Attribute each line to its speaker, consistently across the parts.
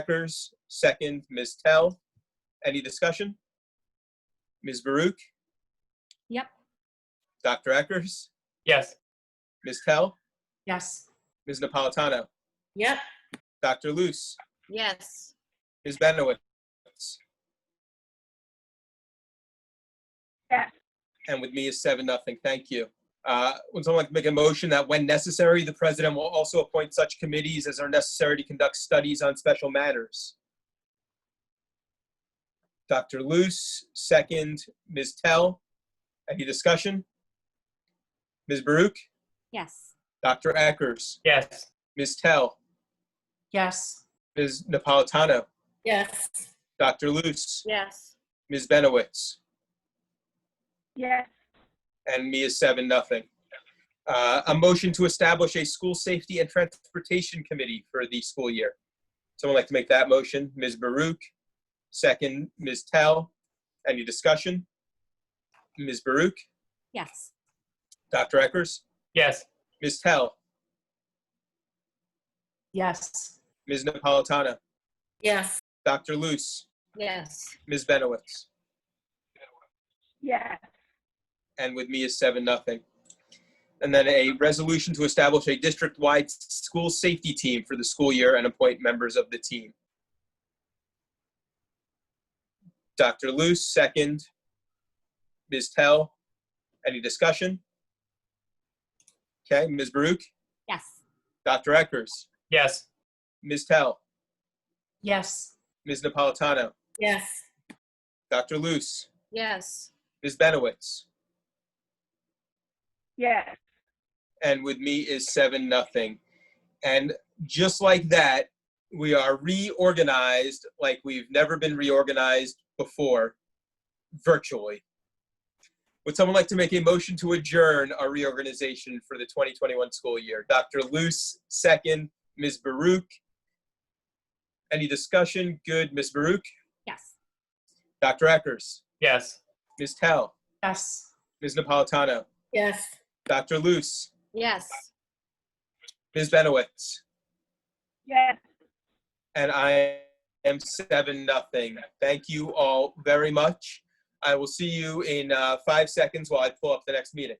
Speaker 1: Eckers, second, Ms. Tell. Any discussion? Ms. Baruch,
Speaker 2: Yep.
Speaker 1: Dr. Eckers,
Speaker 3: Yes.
Speaker 1: Ms. Tell,
Speaker 4: Yes.
Speaker 1: Ms. Napolitano,
Speaker 4: Yep.
Speaker 1: Dr. Luce,
Speaker 2: Yes.
Speaker 1: Ms. Benowitz.
Speaker 5: Yes.
Speaker 1: And with me is seven, nothing. Thank you. Uh, Would someone like to make a motion that when necessary, the president will also appoint such committees as are necessary to conduct studies on special matters? Dr. Luce, second. Ms. Tell, any discussion? Ms. Baruch,
Speaker 2: Yes.
Speaker 1: Dr. Eckers,
Speaker 3: Yes.
Speaker 1: Ms. Tell,
Speaker 4: Yes.
Speaker 1: Ms. Napolitano,
Speaker 4: Yes.
Speaker 1: Dr. Luce,
Speaker 2: Yes.
Speaker 1: Ms. Benowitz.
Speaker 5: yes,
Speaker 1: and me is seven, nothing. Uh, a motion to establish a school safety and transportation committee for the school year. Someone like to make that motion? Ms. Baruch, second, Ms. Tell. Any discussion? Ms. Baruch,
Speaker 2: Yes.
Speaker 1: Dr. Eckers,
Speaker 3: Yes.
Speaker 1: Ms. Tell,
Speaker 4: Yes.
Speaker 1: Ms. Napolitano,
Speaker 4: Yes.
Speaker 1: Dr. Luce,
Speaker 2: Yes.
Speaker 1: Ms. Benowitz.
Speaker 5: yes,
Speaker 1: and with me is seven nothing. And then a resolution to establish a district-wide school safety team for the school year and appoint members of the team. Dr. Luce, second. Ms. Tell, any discussion? Okay, Ms. Baruch,
Speaker 2: Yes.
Speaker 1: Dr. Eckers,
Speaker 3: Yes.
Speaker 1: Ms. Tell,
Speaker 4: Yes.
Speaker 1: Ms. Napolitano,
Speaker 4: Yes.
Speaker 1: Dr. Luce,
Speaker 2: Yes.
Speaker 1: Ms. Benowitz.
Speaker 5: yes,
Speaker 1: and with me is seven nothing. And just like that, we are reorganized like we've never been reorganized before, virtually. Would someone like to make a motion to adjourn our reorganization for the 2021 school year? Dr. Luce, second. Ms. Baruch. Any discussion? Good. Ms. Baruch,
Speaker 2: Yes.
Speaker 1: Dr. Eckers,
Speaker 3: Yes.
Speaker 1: Ms. Tell,
Speaker 4: Yes.
Speaker 1: Ms. Napolitano,
Speaker 4: Yes.
Speaker 1: Dr. Luce,
Speaker 2: Yes.
Speaker 1: Ms. Benowitz.
Speaker 5: yes.
Speaker 1: and I am seven nothing. Thank you all very much. I will see you in uh, five seconds while I pull up the next meeting.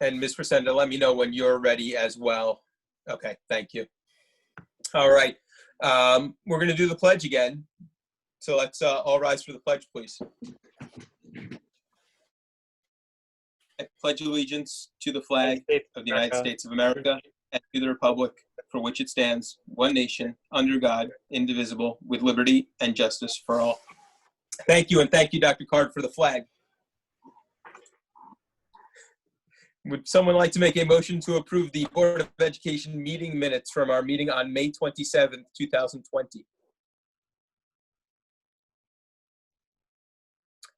Speaker 1: And Ms. Presenda, let me know when you're ready as well. Okay, thank you. All right. Um, we're going to do the pledge again. So let's uh, all rise for the pledge, please. I pledge allegiance to the flag of the United States of America and to the republic for which it stands, one nation, under God, indivisible, with liberty and justice for all. Thank you, and thank you, Dr. Card, for the flag. Would someone like to make a motion to approve the Board of Education meeting minutes from our meeting on May 27th, 2020?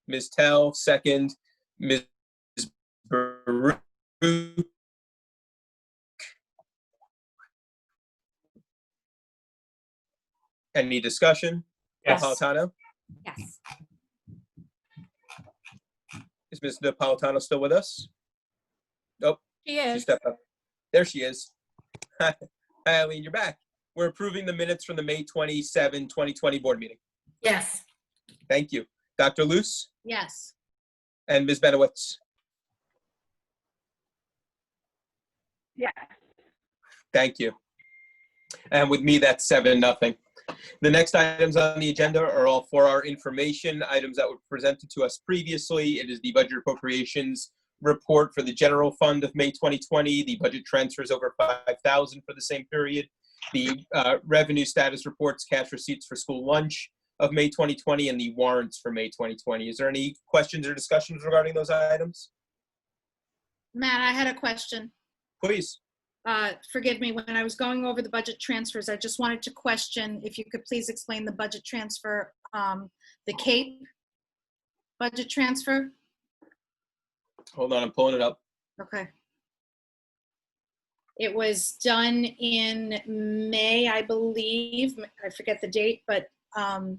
Speaker 1: Ms. Tell, second. Ms. Baruch. Any discussion?
Speaker 3: Yes.
Speaker 1: Napolitano?
Speaker 2: Yes.
Speaker 1: Is Ms. Napolitano still with us?
Speaker 4: She
Speaker 1: She stepped up. There she is. Hi, Eileen, you're back. We're approving the minutes from the May 27, 2020 board meeting.
Speaker 4: Yes.
Speaker 1: Thank you. Dr. Luce
Speaker 2: Yes.
Speaker 1: and Ms. Benowitz.
Speaker 5: Yes.
Speaker 1: Thank you. And with me, that's seven, nothing. The next items on the agenda are all for our information, items that were presented to us previously. It is the budget appropriations report for the general fund of May 2020, the budget transfers over 5,000 for the same period, the uh, revenue status reports, cash receipts for school lunch of May 2020, and the warrants for May 2020. Is there any questions or discussions regarding those items?
Speaker 6: Matt, I had a question.
Speaker 1: Please.
Speaker 6: Uh, Forgive me, when I was going over the budget transfers, I just wanted to question if you could please explain the budget transfer, um, the CAPE budget transfer?
Speaker 1: Hold on, I'm pulling it up.
Speaker 6: Okay. It was done in May, I believe. I forget the date, but um,